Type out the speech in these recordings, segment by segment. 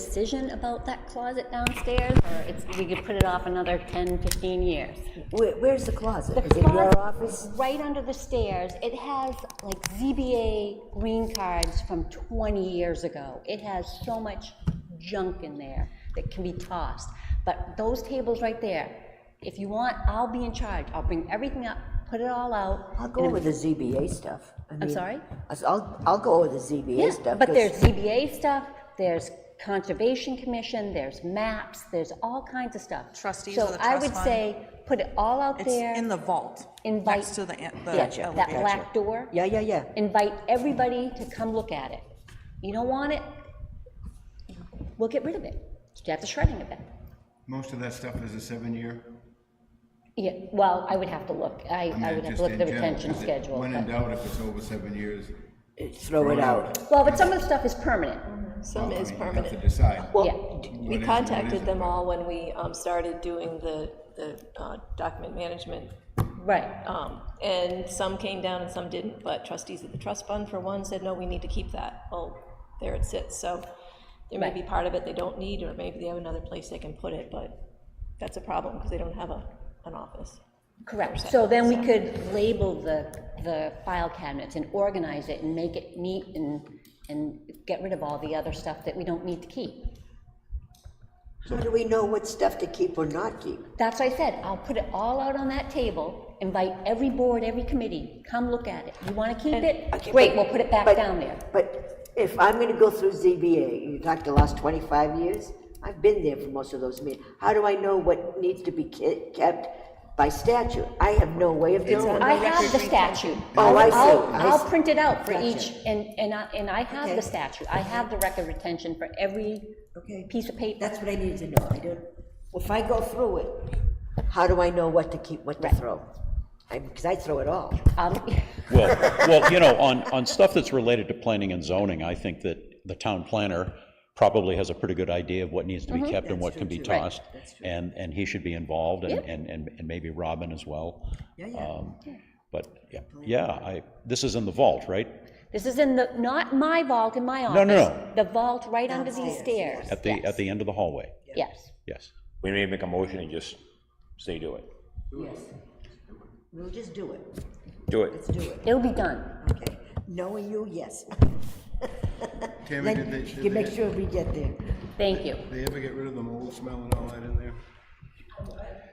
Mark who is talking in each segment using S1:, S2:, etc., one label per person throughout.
S1: decision about that closet downstairs, or it's, we could put it off another 10, 15 years?
S2: Where, where's the closet? Is it your office?
S1: Right under the stairs, it has like ZBA green cards from 20 years ago. It has so much junk in there that can be tossed. But those tables right there, if you want, I'll be in charge. I'll bring everything up, put it all out.
S2: I'll go over the ZBA stuff. I mean,
S1: sorry?
S2: I s- I'll, I'll go over the ZBA
S1: Yeah,
S2: stuff.
S1: but
S2: 'cause
S1: there's ZBA stuff, there's Conservation Commission, there's maps, there's all kinds of stuff.
S3: Trustees
S1: So
S3: of the
S1: I
S3: trust
S1: would
S3: fund.
S1: say, put it all out
S3: It's
S1: there.
S3: in the vault,
S1: Invite-
S3: next to the, an- the
S2: Gotcha.
S1: That
S3: elevator.
S1: black door.
S2: Yeah, yeah, yeah.
S1: Invite everybody to come look at it. You don't want it, we'll get rid of it. You have the shredding of it.
S4: Most of that stuff is a seven-year.
S1: Yeah, well, I would have to look, I,
S4: mean,
S1: I would have
S4: just
S1: to look at
S4: in
S1: the
S4: general,
S1: retention
S4: 'cause it-
S1: schedule.
S4: When in
S1: but-
S4: doubt, if it's over seven years.
S2: Throw it out.
S1: Well, but some of the stuff is permanent.
S5: Some
S4: I
S5: is
S4: mean, you have to
S5: permanent.
S4: decide.
S1: Yeah.
S5: Well, d-
S4: What
S5: we
S4: is- what
S5: contacted
S4: isn't
S5: them
S4: permanent?
S5: all when we um, started doing the, the uh, document management.
S1: Right.
S5: um, And some came down and some didn't, but trustees of the trust fund for one said, no, we need to keep that. Well, there it sits, so there may be part of it they don't need, or maybe they have another place they can put it, but that's a problem because they don't have a, an office.
S1: Correct, so then we could label the, the file cabinets and organize it and make it neat and, and get rid of all the other stuff that we don't need to keep.
S2: How do we know what stuff to keep or not keep?
S1: That's what I said, I'll put it all out on that table, invite every board, every committee, come look at it. You wanna keep
S2: Okay,
S1: it? Great,
S2: but-
S1: we'll put it back
S2: but-
S1: down there.
S2: But if I'm gonna go through ZBA, you talked the last twenty-five years, I've been there for most of those meetings. How do I know what needs to be ke- kept by statute? I have no way of doing
S1: I
S2: it.
S1: have the statute.
S2: Oh, I see,
S1: I'll-
S2: I
S1: I'll
S2: see.
S1: print it out for
S2: Gotcha.
S1: each, and, and I, and I have
S2: Okay.
S1: the statute. I have the record retention for every
S2: Okay.
S1: piece of paper.
S2: That's what I need to know, I don't, if I go through it, how do I know what to keep, what to throw? I, because I throw it all.
S1: Um,
S6: Well, well, you know, on, on stuff that's related to planning and zoning, I think that the town planner probably has a pretty good idea of what needs to be kept and what can be tossed. And, and he should be involved and, and, and and maybe Robin as well. Yeah, yeah. But, yeah, yeah, I, this is in the vault, right?
S1: This is in the, not my vault in my office.
S6: no,
S1: The vault right under these stairs.
S6: At the, at the end of the hallway,
S1: Yes.
S6: yes.
S7: We may make a motion and just say do it.
S2: Yes. We'll just do it,
S7: Do it.
S2: do it,
S1: It'll be done.
S2: okay. Knowing you, yes.
S4: Tammy, did they,
S2: Then
S4: did
S2: you make
S4: they-
S2: sure we get there.
S1: Thank you.
S4: they ever get rid of the mold smell and all that in there?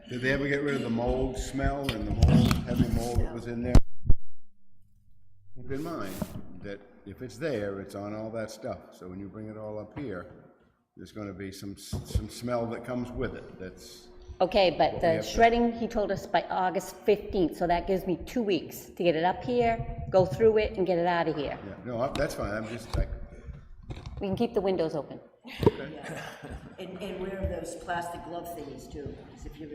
S4: Did they ever get rid of the mold smell and the mold, heavy mold that was in there? Keep in mind that if it's there, it's on all that stuff, so when you bring it all up here, there's gonna be some, s- some smell that comes with it, that's,
S1: Okay, but the
S4: have to-
S1: shredding, he told us by August 15th, so that gives me two weeks to get it up here, go through it, and get it out of here.
S4: yeah, no, I- that's fine, I'm just like,
S1: We can keep the windows open.
S2: And, and wear those plastic glove thingies too, because if you,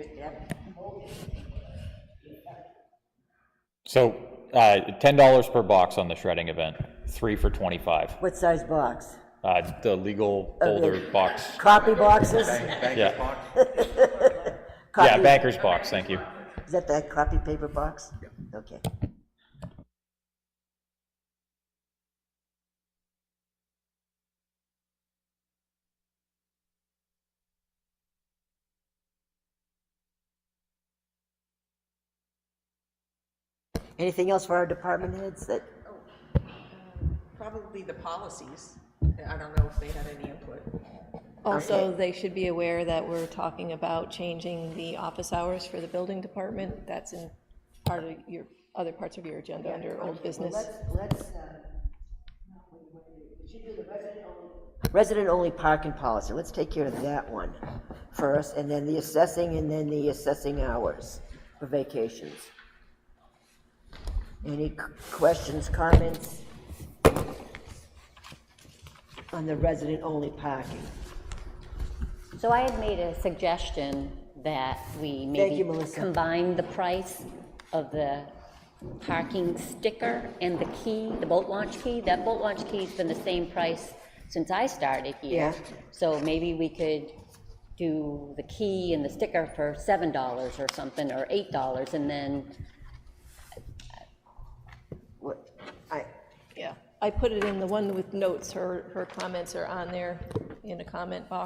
S8: So, uh, ten dollars per box on the shredding event, three for twenty-five.
S2: What size box?
S8: Uh, the legal older box,
S2: Copy boxes?
S8: yeah, yeah,
S2: Copy-
S8: banker's box, thank you.
S2: Is that that copy paper box? Okay. Anything else for our department heads that,
S3: Probably the policies. I don't know if they had any input.
S5: Also, they should be aware that we're talking about changing the office hours for the building department. That's in part of your, other parts of your agenda under old business.
S2: resident-only parking policy, let's take care of that one first, and then the assessing, and then the assessing hours for vacations. Any c- questions, comments? On the resident-only parking.
S1: So I had made a suggestion that we maybe
S2: you, Melissa.
S1: combine the price of the parking sticker and the key, the boat launch key. That boat launch key's been the same price since I started here.
S2: Yeah.
S1: So maybe we could do the key and the sticker for seven dollars or something, or eight dollars, and then
S2: What, I,
S5: Yeah, I put it in the one with notes, her, her comments are on there in the comment box.